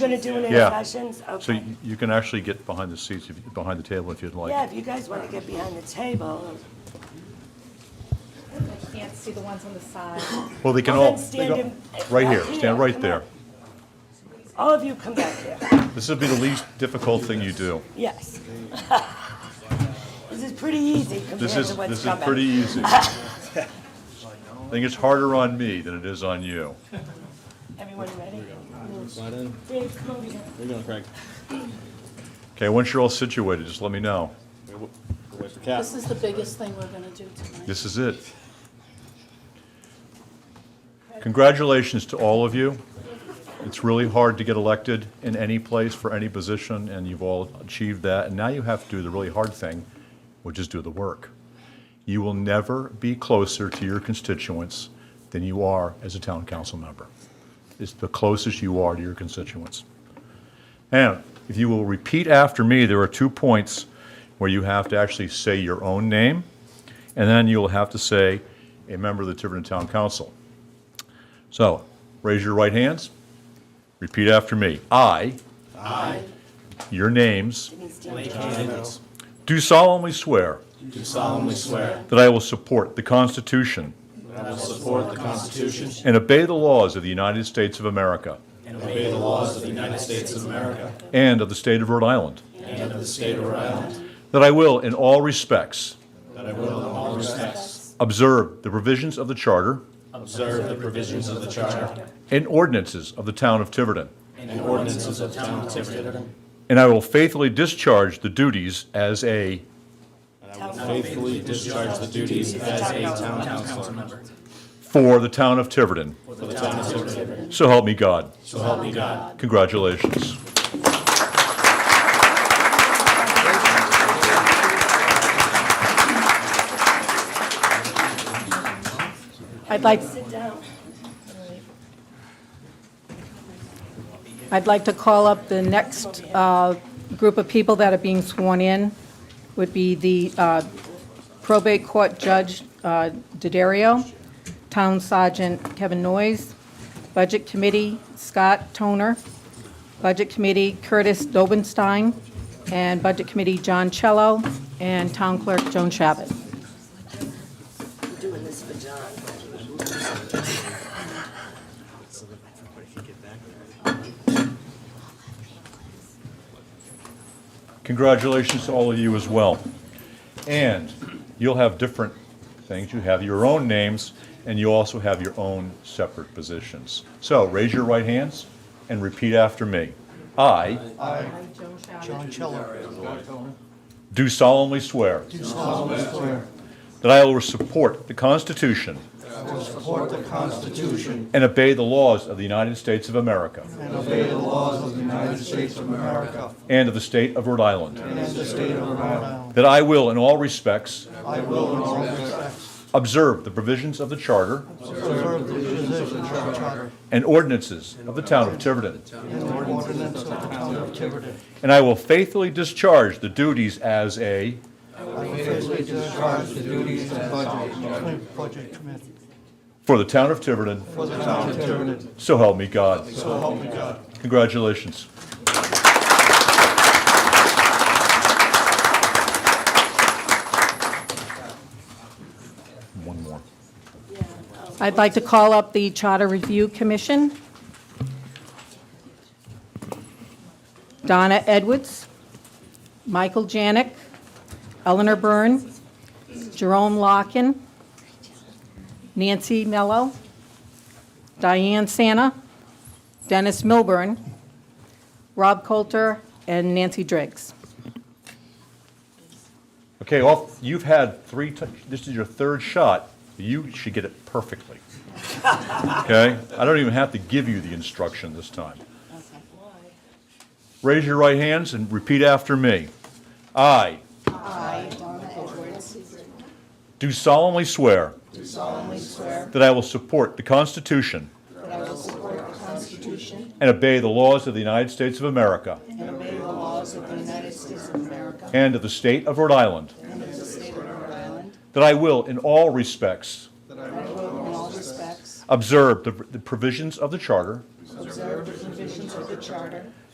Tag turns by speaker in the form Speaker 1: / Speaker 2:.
Speaker 1: Going to do an
Speaker 2: Yeah.
Speaker 1: sessions?
Speaker 2: So
Speaker 1: Okay.
Speaker 2: you- you can actually get behind the seats, if- behind the table if you'd like.
Speaker 1: Yeah, if you guys want to get behind the table,
Speaker 3: I can't see the ones on the side.
Speaker 2: Well, they can
Speaker 1: Well,
Speaker 2: all,
Speaker 1: then
Speaker 2: they
Speaker 1: stand
Speaker 2: go-
Speaker 1: in-
Speaker 2: right
Speaker 1: up
Speaker 2: here,
Speaker 1: here,
Speaker 2: stand right
Speaker 1: come
Speaker 2: there.
Speaker 1: all of you come back here.
Speaker 2: This would be the least difficult thing you do.
Speaker 1: Yes. This is pretty easy compared
Speaker 2: This
Speaker 1: to
Speaker 2: is,
Speaker 1: what's
Speaker 2: this is
Speaker 1: coming.
Speaker 2: pretty easy. I think it's harder on me than it is on you.
Speaker 1: Everyone ready?
Speaker 4: Slide in.
Speaker 1: Dave, come over here.
Speaker 4: We're gonna crack.
Speaker 2: Okay, once you're all situated, just let me know.
Speaker 4: Wait wait for Cap.
Speaker 5: This is the biggest thing we're gonna do tonight.
Speaker 2: This is it. Congratulations to all of you. It's really hard to get elected in any place for any position, and you've all achieved that. And now you have to do the really hard thing, which is do the work. You will never be closer to your constituents than you are as a town council member. It's the closest you are to your constituents. And if you will repeat after me, there are two points where you have to actually say your own name, and then you'll have to say a member of the Tiverton Town Council. So, raise your right hands. Repeat after me. I. I. Your names. Do solemnly swear
Speaker 4: Do solemnly swear
Speaker 2: that I will support the Constitution
Speaker 4: that I will support the Constitution
Speaker 2: and obey the laws of the United States of America
Speaker 4: and obey the laws of the United States of America
Speaker 2: and of the state of Rhode Island.
Speaker 4: and of the state of Rhode Island,
Speaker 2: That I will, in all respects,
Speaker 4: that I will in all respects
Speaker 2: observe the provisions of the Charter
Speaker 4: observe the provisions of the Charter
Speaker 2: and ordinances of the town of Tiverton,
Speaker 4: and ordinances of town of Tiverton,
Speaker 2: and I will faithfully discharge the duties as a,
Speaker 4: and I will faithfully discharge the duties as a town councilor
Speaker 2: for the town of Tiverton.
Speaker 4: for the town of Tiverton.
Speaker 2: So help me God.
Speaker 4: So help me God.
Speaker 2: Congratulations.
Speaker 5: I'd like,
Speaker 1: Sit down.
Speaker 5: I'd like to call up the next uh, group of people that are being sworn in, would be the uh, probate court judge uh, Diderio, town sergeant Kevin Noyes, budget committee Scott Toner, budget committee Curtis Dobenstein, and budget committee John Cello, and town clerk Joan Shabbat.
Speaker 1: I'm doing this for John.
Speaker 2: Congratulations to all of you as well. And you'll have different things. You have your own names, and you also have your own separate positions. So raise your right hands and repeat after me. I
Speaker 5: Joan Shabbat.
Speaker 2: do solemnly swear that I will support the Constitution
Speaker 6: Support the Constitution
Speaker 2: and obey the laws of the United States of America
Speaker 6: and obey the laws of the United States of America
Speaker 2: and of the state of Rhode Island.
Speaker 6: and the state of Rhode Island.
Speaker 2: That I will, in all respects,
Speaker 6: I will in all respects
Speaker 2: observe the provisions of the Charter
Speaker 6: observe the positions of the charter
Speaker 2: and ordinances of the town of Tiverton,
Speaker 6: and the ordinance of the town of Tiverton.
Speaker 2: and I will faithfully discharge the duties as a,
Speaker 6: I faithfully discharge the duties of budget, budget committee
Speaker 2: for the town of Tiverton,
Speaker 6: for the town of Tiverton.
Speaker 2: so help me God.
Speaker 6: So help me God.
Speaker 2: Congratulations. One more.
Speaker 5: I'd like to call up the Charter Review Commission. Donna Edwards, Michael Janik, Eleanor Byrne, Jerome Locken, Nancy Mello, Diane Santa, Dennis Milburn, Rob Coulter, and Nancy Driggs.
Speaker 2: Okay, off, you've had three, tou- this is your third shot. You should get it perfectly. Okay? I don't even have to give you the instruction this time. Raise your right hands and repeat after me. I do solemnly swear that I will support the Constitution and obey the laws of the United States of America and of the state of Rhode Island. That I will, in all respects, observe the the provisions of the Charter
Speaker 5: charter.